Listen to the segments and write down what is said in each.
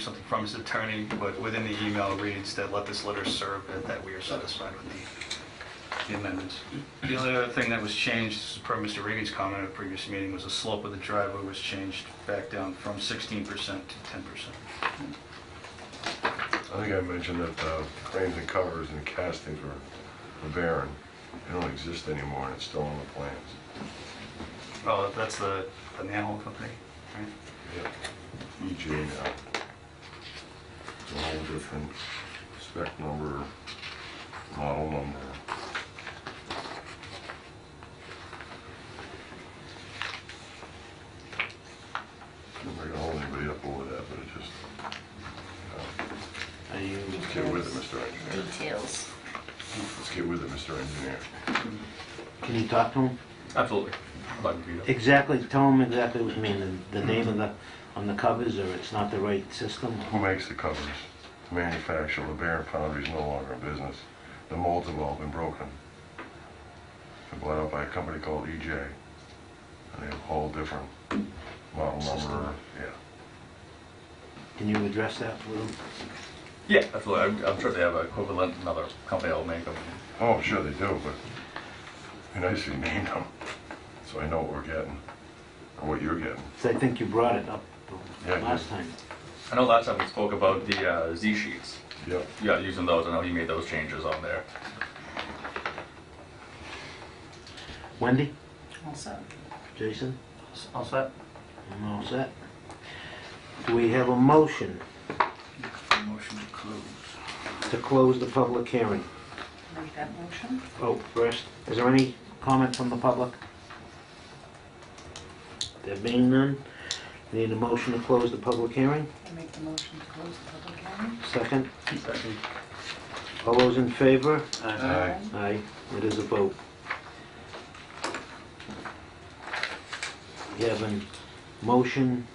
something from his attorney, but within the email reads that let this letter serve, that- that we are satisfied with the- the amendments. The only other thing that was changed, this is per Mr. Regan's comment at a previous meeting, was the slope of the driveway was changed back down from 16% to 10%. I think I mentioned that uh, frames and covers and castings were barren. They don't exist anymore, and it's still on the plans. Oh, that's the the manhole company, right? EJ E now. It's a whole different spec number, model number. Not gonna hold anybody up over that, but it just, Are you? let's get with it, Mr. Engineer. Details. Let's get with it, Mr. Engineer. Can you talk to him? Absolutely. Glad to be here. Exactly, tell him exactly what you mean, the- the name of the, on the covers, or it's not the right system? Who makes the covers? The manufacturer, the Bear Foundry is no longer in business. The molds have all been broken. They're bought out by a company called EJ. And they have a whole different model number, yeah. Can you address that with him? Yeah, absolutely. I'm, I'm sure they have an equivalent, another company that will make them. Oh, I'm sure they do, but it'd be nice if you named them, so I know what we're getting, or what you're getting. 'Cause I think you brought it up Yeah, I the did. last time. I know last time we spoke about the uh, Z sheets. Yep. Yeah, using those. I know he made those changes on there. Wendy, Also, Jason, All set? I'm all set. Do we have a motion Motion to close. to close the public hearing? make that motion. Oh, first, is there any comment from the public? There being none, need a motion to close the public hearing? I make the motion to close the public hearing. Second? All those in favor? Aye. Aye, it is a vote. We have a motion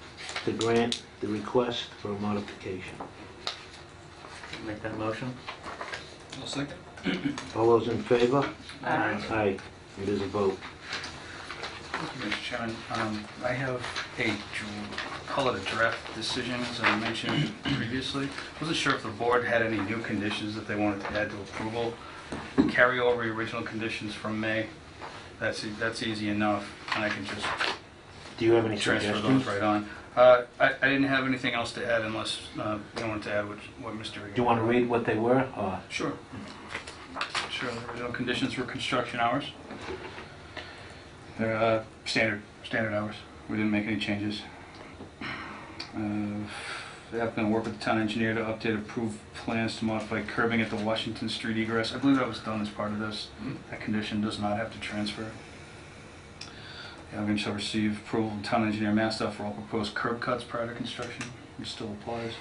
to grant the request for a modification. Make that motion? All those in favor? Aye. Aye, it is a vote. Thank you, Mr. Chairman. Um, I have a, dr- call it a draft decision, as I mentioned previously. Wasn't sure if the board had any new conditions that they wanted to add to approval. Carry over your original conditions from May. That's, e- that's easy enough, and I can just Do you have any transfer those suggestions? Do right on. Uh, I, I didn't have anything else to add unless uh, you wanted to add what, what Mr. you want to read what they were, or? Sure. Sure, the original conditions were construction hours. They're uh, standard, standard hours. We didn't make any changes. Uh, The applicant will work with the town engineer to update approved plans to modify curbing at the Washington Street egress. I believe that was done as part of this. That condition does not have to transfer. The applicant shall receive approval from town engineer Mastoff for all proposed curb cuts prior to construction, which still applies.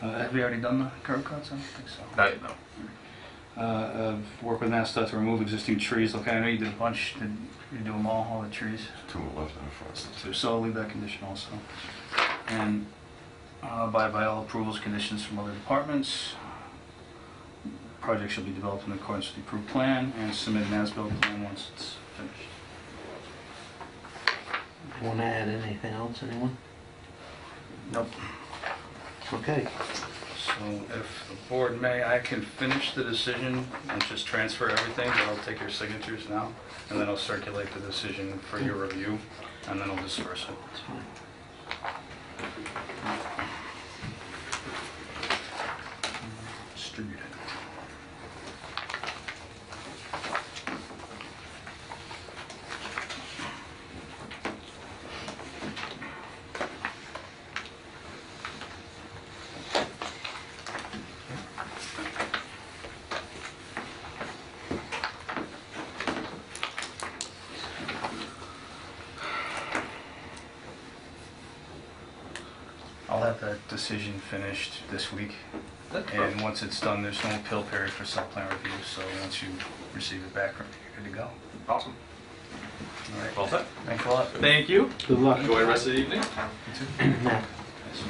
Uh, Have we already done the curb cuts? I don't think so Not, no. uh, of work with NASA to remove existing trees. Look, I know you did a bunch, did you do them all, all the trees? Two left and a front. So I'll leave that condition also. And uh, abide by all approvals, conditions from other departments. Project shall be developed in accordance with the approved plan and submit an as-built plan once it's finished. Want to add anything else, anyone? Nope. Okay, So if the board may, I can finish the decision and just transfer everything, but I'll take your signatures now, and then I'll circulate the decision for your review, and then I'll disperse it. that's fine. distributed. I'll have that decision finished this week. And once it's done, there's no appeal period for site plan review, so once you receive it back, you're good to go. Awesome. All right, Well set. thanks a lot. Thank you. Good luck. Enjoy the rest of the evening. Now, is-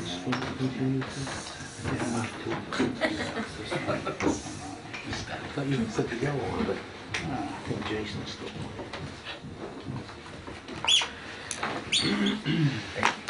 is he continuing to- I think I'm up to it. I thought you put the yellow on, but I think Jason's still. on it.